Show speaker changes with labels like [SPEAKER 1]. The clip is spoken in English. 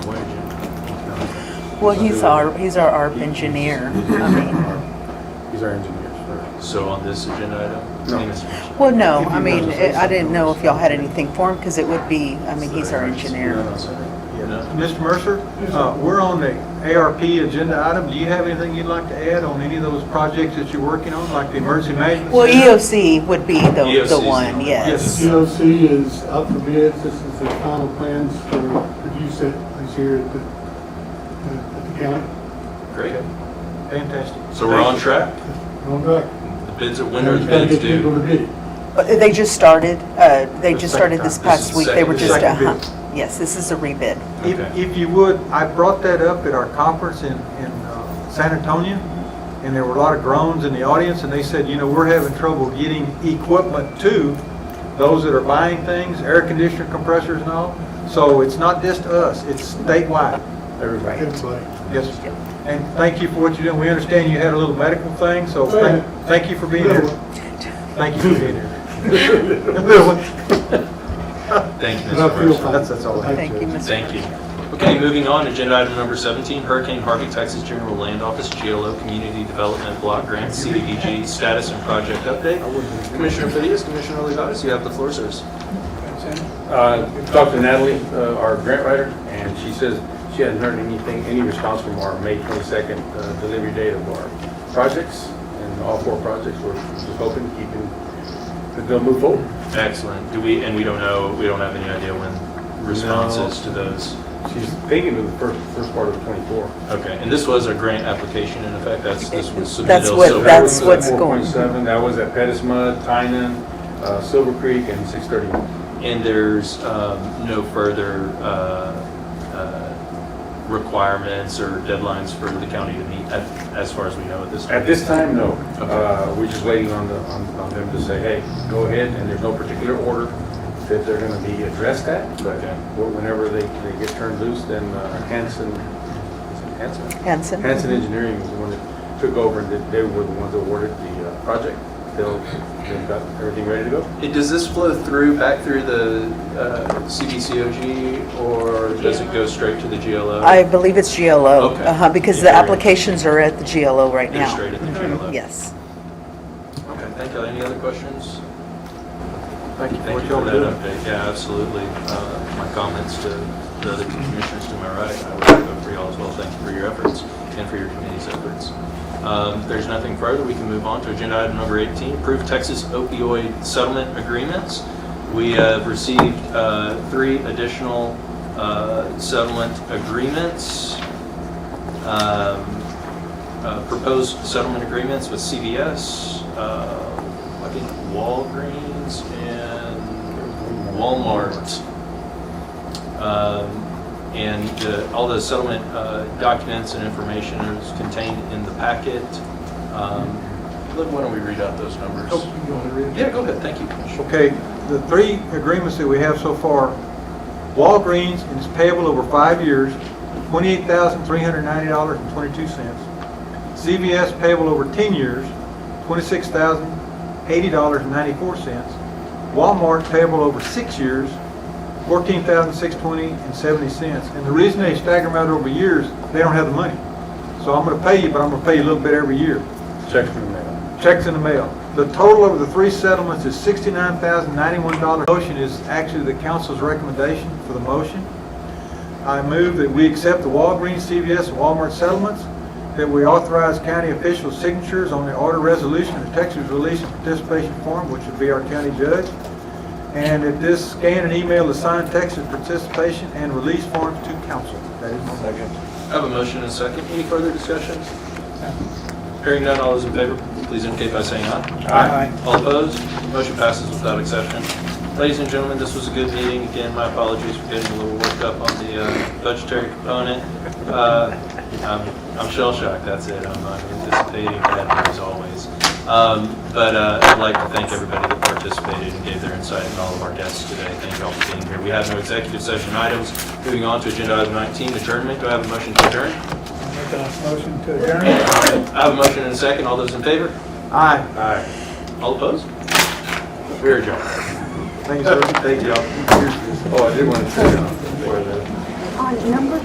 [SPEAKER 1] Well, he's our, he's our ARP engineer. I mean,
[SPEAKER 2] He's our engineer.
[SPEAKER 3] So on this agenda item?
[SPEAKER 2] No.
[SPEAKER 3] I think it's-
[SPEAKER 1] well, no, I mean, it- I didn't know if y'all had anything for him because it would be, I mean, he's our
[SPEAKER 3] No,
[SPEAKER 1] engineer.
[SPEAKER 3] no, sorry. No?
[SPEAKER 4] Mr. Mercer, uh, we're on the ARP agenda item. Do you have anything you'd like to add on any of those projects that you're working on, like the emergency management?
[SPEAKER 1] Well,
[SPEAKER 4] center?
[SPEAKER 1] EOC would be the,
[SPEAKER 3] EOC 's
[SPEAKER 1] the
[SPEAKER 3] the
[SPEAKER 1] one,
[SPEAKER 3] one.
[SPEAKER 1] yes.
[SPEAKER 5] COC is up for bids, this is the final plans for use that is here at the, at the county.
[SPEAKER 3] Great.
[SPEAKER 4] Fantastic.
[SPEAKER 3] So we're on track?
[SPEAKER 5] Going back.
[SPEAKER 3] The bids, are- when are the
[SPEAKER 5] Gotta
[SPEAKER 3] bids
[SPEAKER 5] get people to
[SPEAKER 3] due?
[SPEAKER 5] bid.
[SPEAKER 1] But They just started, uh, they just started this
[SPEAKER 3] This is
[SPEAKER 1] past
[SPEAKER 3] the
[SPEAKER 1] week. They were
[SPEAKER 3] second-
[SPEAKER 1] just,
[SPEAKER 4] second bid.
[SPEAKER 1] uh-huh. Yes, this is a rebid.
[SPEAKER 4] If,
[SPEAKER 3] Okay.
[SPEAKER 4] if you would, I brought that up at our conference in, in uh, San Antonio, and there were a lot of groans in the audience, and they said, you know, we're having trouble getting equipment to those that are buying things, air conditioner compressors and all. So it's not just us, it's statewide.
[SPEAKER 2] Everybody.
[SPEAKER 5] Everybody.
[SPEAKER 4] Yes, sir. and thank you for what you're doing. We understand you had a little medical thing, so thank- thank you for being here. Thank you for being here.
[SPEAKER 3] Thank you,
[SPEAKER 5] And I
[SPEAKER 3] Mr.
[SPEAKER 5] feel
[SPEAKER 3] Mercer.
[SPEAKER 5] fine.
[SPEAKER 4] That's- that's all I have.
[SPEAKER 1] Thank you, Mr.
[SPEAKER 3] Thank you. Okay, moving on, agenda item number 17, Hurricane Harvey, Texas General Land Office, GLO Community Development Block Grant, CDBG status and project update. Commissioner Fidias, Commissioner Olivares, you have the floor, sirs.
[SPEAKER 2] Uh, Talked to Natalie, uh, our grant writer, and she says she hasn't heard anything, any response from our May 22nd uh, delivery date of our projects, and all four projects, we're just hoping, keeping, that they'll move forward.
[SPEAKER 3] Excellent. Do we, and we don't know, we don't have any idea when responses to those.
[SPEAKER 2] She's thinking of the first, first part of 24.
[SPEAKER 3] Okay, and this was a grant application in effect, that's, this was submitted.
[SPEAKER 1] That's
[SPEAKER 3] also-
[SPEAKER 1] what-
[SPEAKER 2] So that
[SPEAKER 1] that's
[SPEAKER 2] was at
[SPEAKER 1] what's going-
[SPEAKER 2] 4.7, that was at Pettis Mud, Tynan, uh, Silver Creek, and 631.
[SPEAKER 3] And there's um, no further uh, uh, requirements or deadlines for the county to meet, at- as far as we know at this.
[SPEAKER 2] At this time, no.
[SPEAKER 3] Okay.
[SPEAKER 2] Uh, We're just waiting on the, on on them to say, hey, go ahead, and there's no particular order that they're going to be addressed at, but
[SPEAKER 3] Okay.
[SPEAKER 2] wh- whenever they, they get turned loose, then uh, Hanson, is it Hanson?
[SPEAKER 1] Hanson?
[SPEAKER 2] Hanson Engineering was the one that took over, and they- they were the ones that awarded the uh, project. They'll, they've got everything ready to go.
[SPEAKER 3] It- Does this flow through, back through the uh, CDCOG, or does it go straight to the GLO?
[SPEAKER 1] I believe it's GLO,
[SPEAKER 3] Okay.
[SPEAKER 1] uh-huh, because
[SPEAKER 3] Yeah,
[SPEAKER 1] the
[SPEAKER 3] you're right.
[SPEAKER 1] applications are at the GLO right
[SPEAKER 3] They're
[SPEAKER 1] now.
[SPEAKER 3] straight at the GLO?
[SPEAKER 1] Yes.
[SPEAKER 3] Okay, thank you. Any other questions?
[SPEAKER 4] Thank you for
[SPEAKER 3] Thank
[SPEAKER 4] what
[SPEAKER 3] you for
[SPEAKER 4] y'all are
[SPEAKER 3] that
[SPEAKER 4] doing.
[SPEAKER 3] update. Yeah, absolutely. Uh, My comments to the other commissioners to my right, I would echo for y'all as well. Thank you for your efforts and for your committee's efforts. Um, If there's nothing further, we can move on to agenda item number 18, approve Texas opioid settlement agreements. We have received uh, three additional uh, settlement agreements. Um, uh, proposed settlement agreements with CVS, uh, I think Walgreens and Walmart. Um, And the- all the settlement uh, documents and information is contained in the packet. Um, Look, why don't we read out those numbers? Oh, Yeah, go ahead, thank you.
[SPEAKER 4] Okay, the three agreements that we have so far, Walgreens is payable over five years, twenty-eight thousand, three hundred ninety dollars and twenty-two cents. CVS payable over ten years, twenty-six thousand, eighty dollars and ninety-four cents. Walmart payable over six years, fourteen thousand, six twenty and seventy cents. And the reason they stagger them out over years, they don't have the money. So I'm gonna pay you, but I'm gonna pay you a little bit every year
[SPEAKER 2] Check from the mail.
[SPEAKER 4] checks in the mail. The total over the three settlements is sixty-nine thousand ninety-one dollars. Motion is actually the council's recommendation for the motion. I move that we accept the Walgreens, CVS, and Walmart settlements, that we authorize county official signatures on the order resolution of the Texas Release and Participation Form, which would be our county judge, and that this scan and email the signed Texas participation and release forms to council. That is my motion.
[SPEAKER 3] I have a motion and a second. Any further discussion? Hearing none, all those in favor, please indicate by saying aye. Aye. All opposed? Motion passes without exception. Ladies and gentlemen, this was a good meeting. Again, my apologies for getting a little worked up on the uh, budgetary component. Uh, I'm I'm shell-shocked, that's it. I'm not anticipating bad news always. Um, But uh, I'd like to thank everybody that participated and gave their insight and all of our guests today. Thank you all for being here. We have no executive session items. Moving on to agenda item 19, adjournment. Do I have a motion to adjourn?
[SPEAKER 4] Motion to adjourn.
[SPEAKER 3] I have a motion and a second. All those in favor?
[SPEAKER 4] Aye.
[SPEAKER 2] Aye.
[SPEAKER 3] All opposed? We're adjourned.
[SPEAKER 4] Thank you, sir. Thank you.
[SPEAKER 2] Oh, I did want to say, uh, where the
[SPEAKER 6] on number